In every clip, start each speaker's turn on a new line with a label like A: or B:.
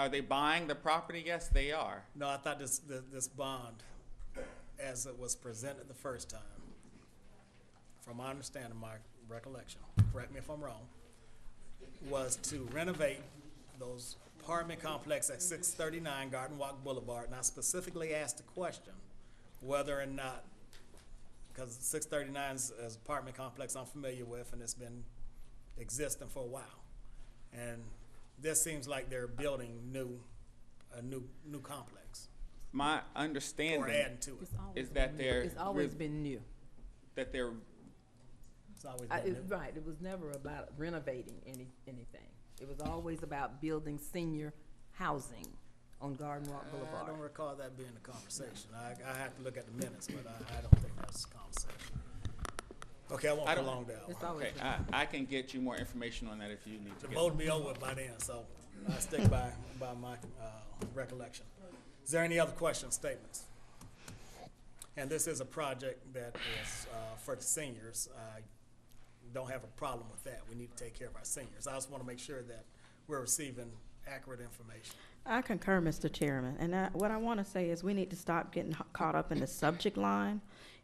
A: Are they buying the property? Yes, they are.
B: No, I thought this, th- this bond, as it was presented the first time, from my understanding, my recollection, correct me if I'm wrong, was to renovate those apartment complex at six thirty-nine Garden Walk Boulevard, and I specifically asked the question whether or not, because six thirty-nine is is apartment complex I'm familiar with, and it's been existing for a while. And this seems like they're building new, a new, new complex,
A: My
B: or
A: understanding
B: adding to it.
C: It's always
A: is that
C: been new.
A: they're
C: It's always
A: re-
C: been new.
A: that they're
B: It's always
C: I,
B: been
C: it,
A: Mm-hmm.
B: new.
C: right, it was never about renovating any, anything. It was always about building senior housing on Garden
A: Uh,
C: Walk
B: I don't
C: Boulevard.
B: recall that being a conversation. I, I have to look at the minutes, but I, I don't think that's a conversation. Okay, I won't
A: I don't-
B: prolong that
C: It's
B: one.
C: always
A: okay.
C: been.
A: I, I can get you more information on that if you need to.
B: The
A: Get
B: vote will be over by then, so I stick by, by my, uh, recollection. Is there any other questions, statements? And this is a project that is, uh, for the seniors. I don't have a problem with that. We need to take care of our seniors. I just wanna make sure that we're receiving accurate information.
D: I concur, Mr. Chairman, and I, what I want to say is we need to stop getting h- caught up in the subject line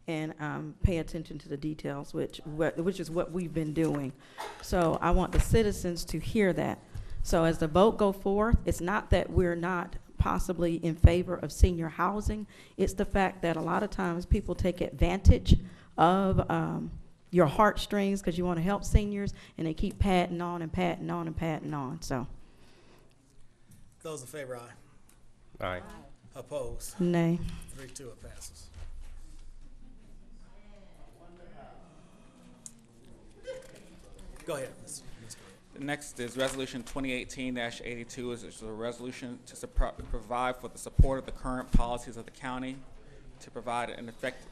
D: and um, pay attention to the details, which what, which is what we've been doing. So I want the citizens to hear that. So as the vote go forth, it's not that we're not possibly in favor of senior housing. It's the fact that a lot of times people take advantage of um, your heartstrings because you want to help seniors, and they keep patting on and patting on and patting on. So
B: Those in favor, aye.
E: Aye.
B: Opposed?
D: nay.
B: Three, two, it passes. Go ahead, Mr. Mr. Green.
A: The next is Resolution 2018-82, is is a resolution to supro- provide for the support of the current policies of the county, to provide an effective,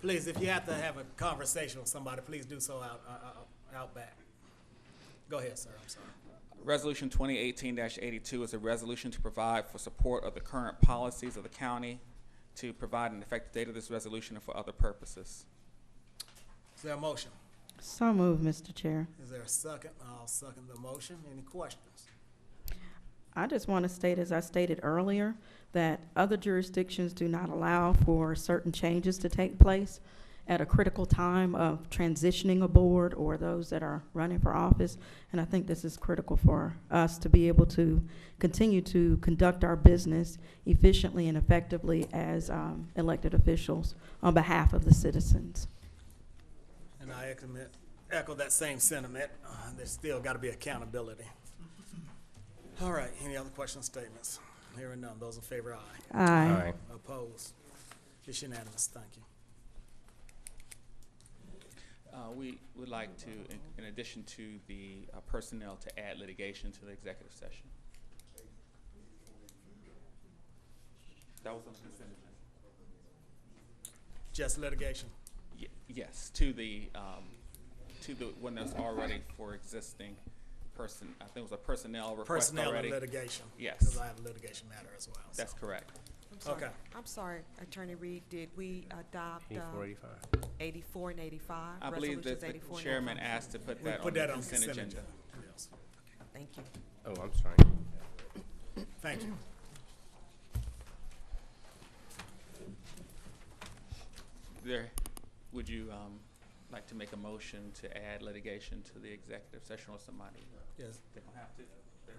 B: Please, if you have to have a conversation with somebody, please do so out, uh, uh, out back. Go ahead, sir, I'm sorry.
A: Resolution 2018-82 is a resolution to provide for support of the current policies of the county, to provide an effective date of this resolution and for other purposes.
B: Is there a motion?
D: So moved, Mr. Chair.
B: Is there a second? I'll second the motion. Any questions?
D: I just want to state, as I stated earlier, that other jurisdictions do not allow for certain changes to take place at a critical time of transitioning a board or those that are running for office. And I think this is critical for us to be able to continue to conduct our business efficiently and effectively as um, elected officials on behalf of the citizens.
B: And I echo, echo that same sentiment. Uh, there's still gotta be accountability. All right, any other questions, statements? Hearing none. Those in favor, aye.
D: Aye.
B: Opposed? It's unanimous, thank you.
A: Uh, We would like to, in- in addition to the uh, personnel, to add litigation to the executive session. That was on the consent agenda.
B: Just litigation.
A: Ye- Yes, to the, um, to the one that's already for existing person, I think it was a personnel request
B: Personnel
A: already.
B: and litigation.
A: Yes.
B: Because I have a litigation matter as well. so.
A: That's correct.
F: I'm sorry.
B: Okay.
F: I'm sorry, Attorney Reed, did we adopt uh,
E: Eighty-four, eighty-five.
F: 84 and 85?
A: I believe that
F: Resolutions
A: the
F: 84 and
A: chairman
F: 85.
A: asked to put
B: We
A: that on
B: put
A: the
B: that on
A: consent agenda.
B: Yes.
F: Thank you.
E: Oh, I'm sorry.
B: Thank you.
A: There, would you um, like to make a motion to add litigation to the executive session or somebody?
B: Yes.
A: They don't have to. They're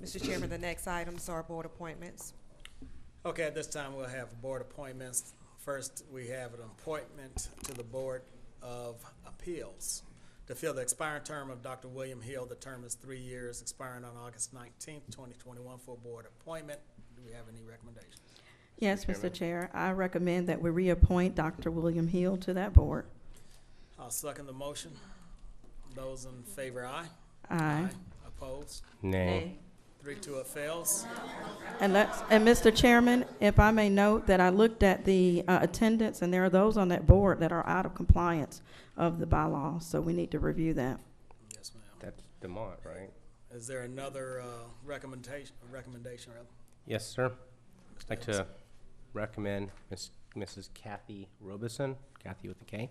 A: not.
F: Mr. Chairman, the next items are board appointments.
B: Okay, at this time, we'll have board appointments. First, we have an appointment to the Board of Appeals to fill the expiring term of Dr. William Hill. The term is three years, expiring on August nineteenth, twenty twenty-one, for a board appointment. Do we have any recommendations?
D: Yes,
E: Chairman.
D: Mr. Chair, I recommend that we reappoint Dr. William Hill to that board.
B: I'll second the motion. Those in favor, aye.
D: Aye.
B: Opposed?
E: Nay.
B: Three, two, it fails.
D: And let's, and Mr. Chairman, if I may note that I looked at the uh, attendance, and there are those on that board that are out of compliance of the bylaws, so we need to review that.
B: Yes, ma'am.
E: That's Demont, right?
B: Is there another uh, recommendation, recommendation rather?
E: Yes, sir. I'd like
B: Mr. Ellis?
E: to recommend Miss, Mrs. Kathy Robeson, Kathy with a K,